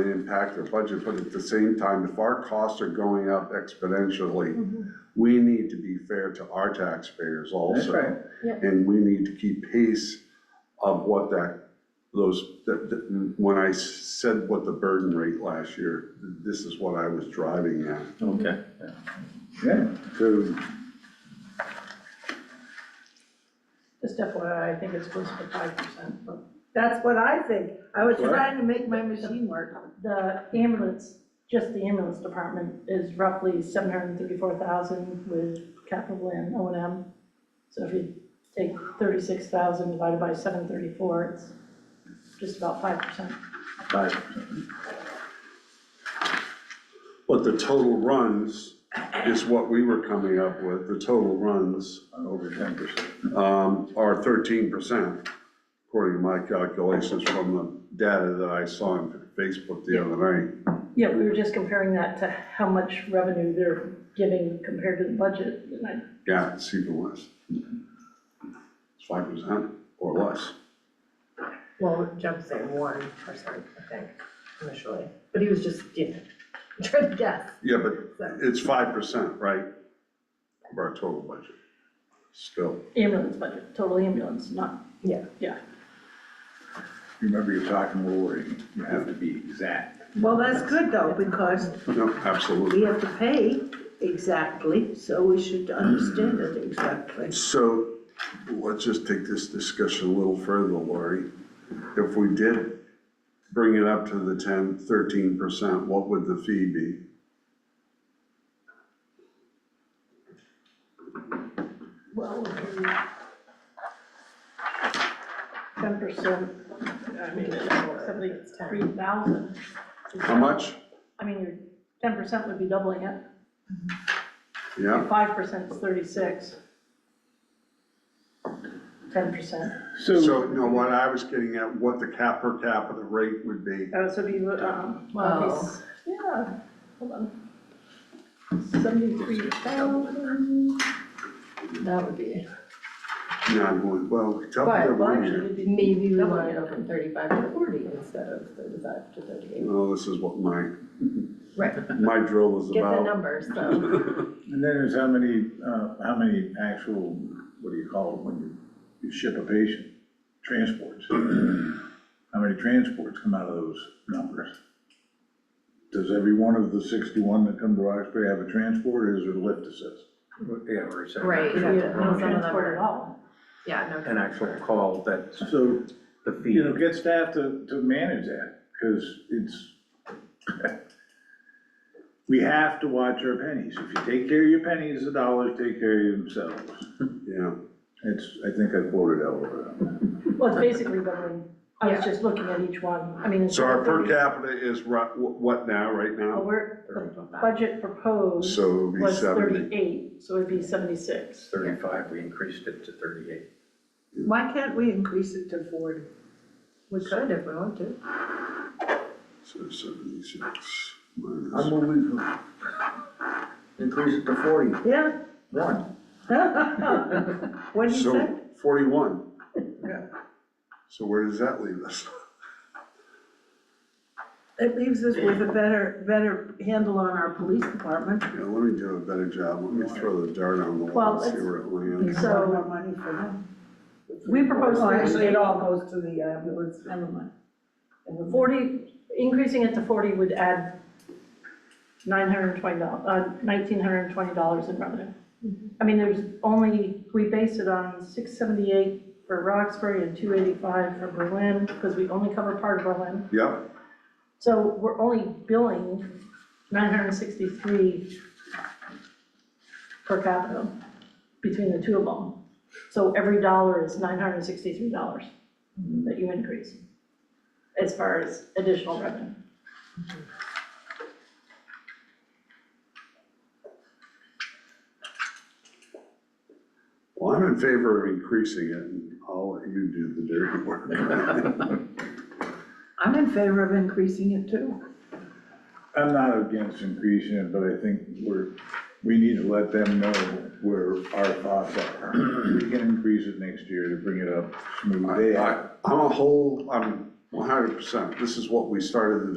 impact their budget, but at the same time, if our costs are going up exponentially, we need to be fair to our taxpayers Mm-hmm. That's right. also. Yeah. And we need to keep pace of what that, those, that, that- when I said what the burden rate last year, this is what I was driving at. Okay. Yeah, so, Just FYI, I think it's supposed to be five percent, but that's what I think. I was Sure. trying to make my machine work. The ambulance, just the ambulance department is roughly seven hundred and thirty-four thousand with capital and O and M. So if you take thirty-six thousand divided by seven thirty-four, it's just about five percent. five, But the total runs is what we were coming up with, the total runs, over ten percent. um, are thirteen percent, according to my calculations from the data that I saw on Facebook the other night. Yeah, we were just comparing that to how much revenue they're giving compared to the budget. And I Yeah, it's even less. It's five percent or less. Well, Jeff's saying one percent, I think, initially, but he was just, you know, trying to guess, Yeah, but so. it's five percent, right? Of our total budget, still. Ambulance budget, total ambulance, not, Yeah. yeah. Remember, you're talking lowering, you have to be exact. Well, that's good though, because No, we absolutely. have to pay exactly, so we should understand it exactly. So let's just take this discussion a little further, Lori. If we did bring it up to the 10, 13 percent, what would the fee be? Well, ten percent, I mean, seventy-three thousand. How much? I mean, your ten percent would be doubling it, Yeah, five percent is thirty-six. Ten percent, so, no, what I was getting at, what the cap per capita rate would be. uh, so be, um, well, these- yeah, hold on. Seventy-three thousand, That would be, No, I'm going, well, tell me But- the well, one actually, here. it'd be maybe we Double. want to go from thirty-five to forty instead of thirty-five to thirty-eight. Well, Oh, this is what my, Right, my drill is get the about. numbers, so, And then there's how many, uh, how many actual, what do you call it, when you, you ship a patient? Transports. How many transports come out of those numbers? Does every one of the sixty-one that come to Roxbury have a transport, or is there lift assist? Yeah, or is that Right, yeah, Yeah, some no of them transport at are- all. yeah, no. An actual call that's So the fee. you know, get staff to, to manage that, because it's, we have to watch our pennies. If you take care of your pennies, the dollars take care of themselves. Yeah, It's, I think I quoted Elwood. Well, it's basically doubling, I was just looking at each one, I mean. it's so our per 30. capita is ru- wh- what now, right Well, now? we're, the budget proposed So it would be was seventy. thirty-eight, so it'd be seventy-six. Thirty-five, we increased it to thirty-eight. Why can't we increase it to forty? We could if we want to. So seventy-six I'm minus, moving. Increase it to forty, Yeah. one. What do you say? so forty-one. Yeah. So where does that leave us? It leaves us with a better, better handle on our police department. Yeah, let me do a better job, let me throw the dart on the Well, wall and see let's- where it We lands. can So- have more money for them. We proposed Well, actually, it thirty-eight, all goes to the uh, ambulance, never mind. Never mind. forty, increasing it to forty would add nine hundred and twenty dollars, uh, nineteen hundred and twenty dollars in revenue. I mean, there's only, we based it on six seventy-eight for Roxbury and two eighty-five for Berlin, because we only cover part of Berlin. Yep, So we're only billing nine hundred and sixty-three per capita between the two of them. So every dollar is nine hundred and sixty-three dollars that you increase as far as additional revenue. well, I'm in favor of increasing it, and I'll let you do the dirty work. I'm in favor of increasing it too. I'm not against increasing it, but I think we're, we need to let them know where our thoughts are. We can increase it next year to bring it up smooth. They have- I- I'm a whole, I'm one hundred percent, this is what we started the